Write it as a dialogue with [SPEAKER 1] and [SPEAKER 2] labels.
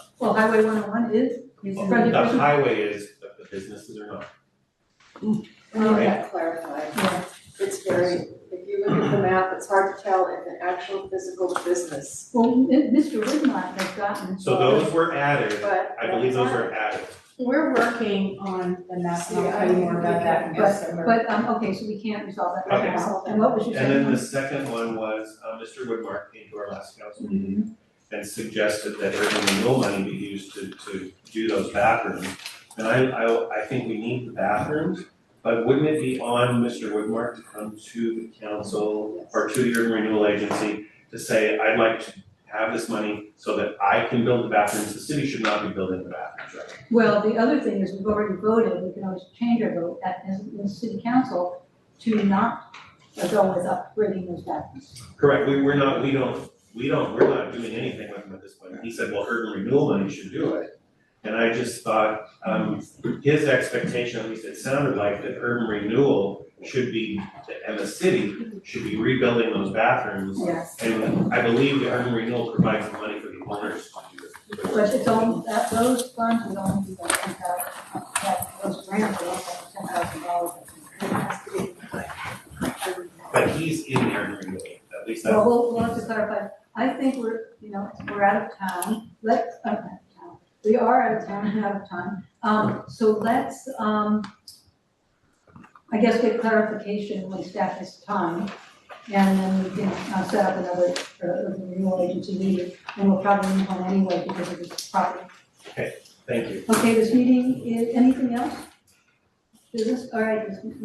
[SPEAKER 1] Well, Highway one oh one is, is
[SPEAKER 2] Well,
[SPEAKER 1] Frontage-
[SPEAKER 2] The highway is, but the businesses are not.
[SPEAKER 3] We need that clarified.
[SPEAKER 1] yeah,
[SPEAKER 3] It's very, if you look at the map, it's hard to tell if an actual physical business,
[SPEAKER 1] well, Mi- Mr. Widmott has gotten.
[SPEAKER 2] So those were added,
[SPEAKER 3] but.
[SPEAKER 2] I believe those were added.
[SPEAKER 4] We're working on the map, and I'll tell you more about that in just a moment.
[SPEAKER 1] But, um, okay, so we can't resolve that right
[SPEAKER 2] Okay.
[SPEAKER 1] now, and what was your
[SPEAKER 2] And
[SPEAKER 1] second
[SPEAKER 2] then
[SPEAKER 1] one?
[SPEAKER 2] the second one was, uh, Mr. Woodmark came to our last council meeting and suggested that urban renewal money be used to, to do those bathrooms. And I, I, I think we need the bathrooms, but wouldn't it be on Mr. Woodmark to come to the council or to the urban renewal agency to say, I'd like to have this money so that I can build the bathrooms, the city should not be building the bathrooms, right?
[SPEAKER 1] Well, the other thing is we've already voted, we can always change our vote at, as, as city council to not go with upgrading those bathrooms.
[SPEAKER 2] Correct, we, we're not, we don't, we don't, we're not doing anything with them at this point. He said, well, urban renewal money should do it. And I just thought, um, his expectation, at least it sounded like, that urban renewal should be, and the city should be rebuilding those bathrooms.
[SPEAKER 1] Yes.
[SPEAKER 2] And I believe the urban renewal provides the money for the owners to do it.
[SPEAKER 1] But it's only, that, those funds would only be like ten thousand, that, those grants would also be ten thousand dollars.
[SPEAKER 2] But he's in the urban renewal, at least
[SPEAKER 1] Well,
[SPEAKER 2] that,
[SPEAKER 1] we'll, we'll have to clarify, I think we're, you know, we're out of town, let's, I'm out of town, we are out of town, and out of time. Um, so let's, um, I guess get clarification when staff has time, and then we can, uh, set up another, uh, renewal agency meeting, and we'll probably need one anyway because of this property.
[SPEAKER 2] thank you.
[SPEAKER 1] Okay, this meeting is, anything else? Business, all right, this